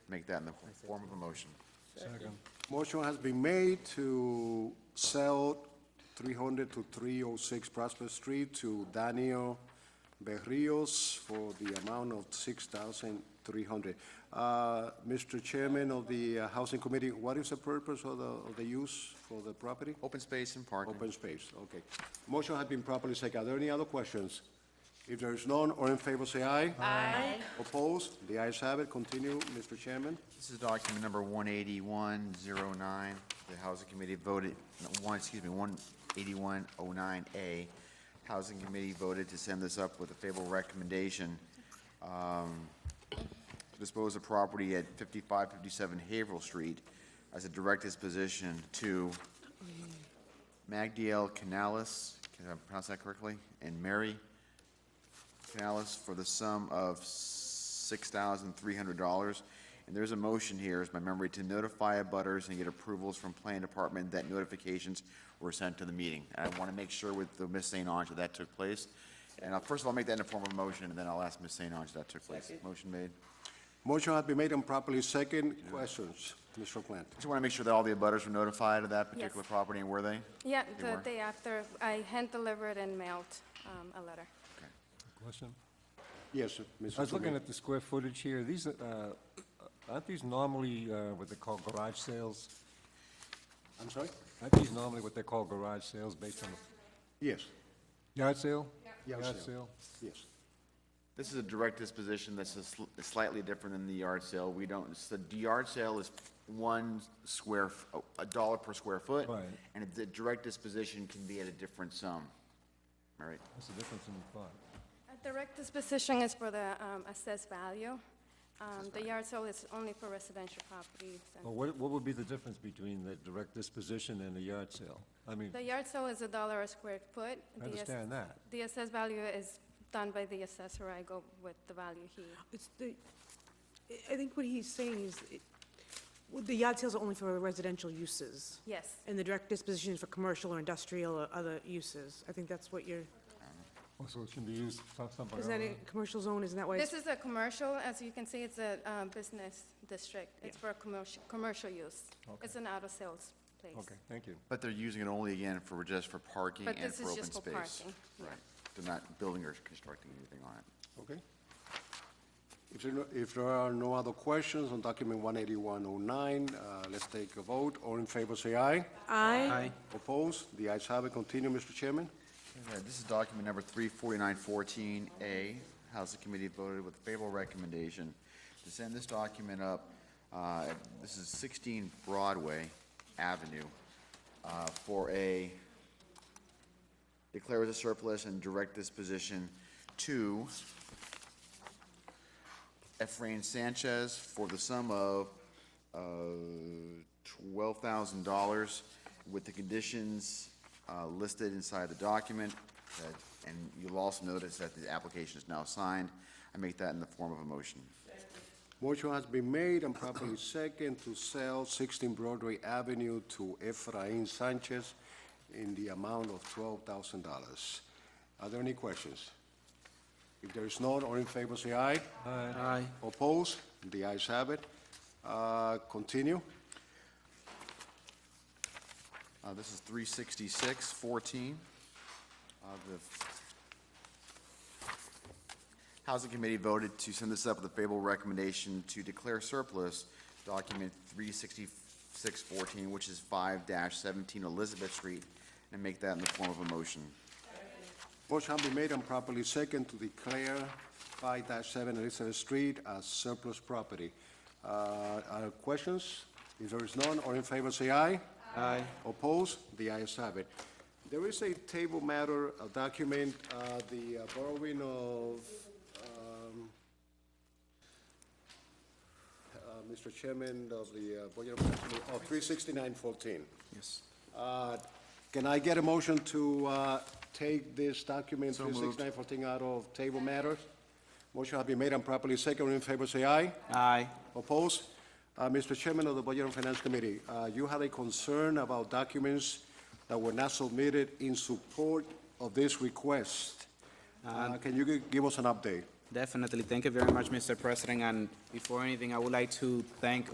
make that in the form of a motion. Motion has been made to sell 300 to 306 Prospect Street to Daniel Berrios for the amount of 6300 Uh, Mr. Chairman of the uh, Housing Committee, what is the purpose of the, of the use for the property? Open space and parking. Open space, okay. Motion has been properly seconded. Are there any other questions? If there is none, or in favor, say aye. Aye. Opposed? The ayes have it. Continue, Mr. Chairman. This is document number 18109. The Housing Committee voted, no, one, excuse me, 18109A. Housing Committee voted to send this up with a favorable recommendation. um, to Dispose of property at 5557 Haverhill Street as a direct disposition to Magdiel Canales, can I pronounce that correctly? And Mary Canales for the sum of six thousand three hundred dollars. And there's a motion here, is my memory, to notify abutters and get approvals from planning department that notifications were sent to the meeting. And I want to make sure with the Miss St. Ange that that took place. And I'll, first of all, make that in a form of a motion, and then I'll ask Miss St. Ange that took place. Motion made. Motion has been made and properly second. Questions, Mr. Plant? Just want to make sure that all the abutters were notified of that particular Yes. property, and were they? Yeah, They the were? day after, I hand-delivered and mailed um, a letter. Question? Yes, Mr. I was looking Clement. at the square footage here, these, uh, aren't these normally uh, what they call garage sales? I'm sorry? Aren't these normally what they call garage sales based on Yes, the yard sale? Yard sale. yes. This is a direct disposition that's a sl- slightly different than the yard sale. We don't, so the yard sale is one square, f- oh, a dollar per square foot. Right. And the direct disposition can be at a different sum. All right. What's the difference in the thought? A direct disposition is for the um, assessed value. Um, The yard sale is only for residential properties. and- Well, what, what would be the difference between the direct disposition and the yard sale? I mean, The yard sale is a dollar a square foot. I The ass- understand that. The assessed value is done by the assessor. I go with the value he, It's the, I- I think what he's saying is, it- well, the yard sales are only for residential uses, yes. and the direct disposition is for commercial or industrial or other uses. I think that's what you're, Oh, So it can be used for something is that other a commercial zone, isn't that why? This it's- is a commercial, as you can see, it's a um, business district. It's for commercial, commercial use. It's an auto sales place. than- Okay, thank you. But they're using it only again for, just for parking But and this for is open just for space. parking, yeah. Right. They're not building or constructing anything on it. Okay. If there, no- if there are no other questions on document 18109, uh, let's take a vote. All in favor, say aye. Aye. Opposed? The ayes have it. Continue, Mr. Chairman. All right, This is document number three forty-nine fourteen A. Housing Committee voted with favorable recommendation to send this document up. uh, This is sixteen Broadway Avenue uh, for a, declare as a surplus and direct disposition to Efrain Sanchez for the sum of uh, $12,000 with the conditions uh, listed inside the document. that- And you'll also notice that the application is now signed. I make that in the form of a motion. Motion has been made and properly second to sell 16 Broadway Avenue to Efrain Sanchez in the amount of $12,000. Are there any questions? If there is none, all in favor, say aye. Aye. Opposed? The ayes have it. Uh, Continue. Uh, This is 36614 of Uh, the Housing Committee voted to send this up with a favorable recommendation to declare surplus document 36614, which is 5-17 Elizabeth Street, and make that in the form of a motion. Motion has been made and properly second to declare 5-7 Elizabeth Street as surplus property. Uh, Are there questions? If there is none, all in favor, say aye. Aye. Opposed? The ayes have it. There is a table matter, a document, uh, the uh, borrowing of, um, uh, Mr. Chairman of the uh, Board of Trustees, of 36914. Yes. Uh, Can I get a motion to uh, take this document, So moved. 36914, out of table matters? Motion has been made and properly seconded. In favor, say aye. Aye. Opposed? Uh, Mr. Chairman of the Budget and Finance Committee, uh, you had a concern about documents that were not submitted in support of this request. Uh, Can you gi- give us an update? Definitely. Thank you very much, Mr. President. And before anything, I would like to thank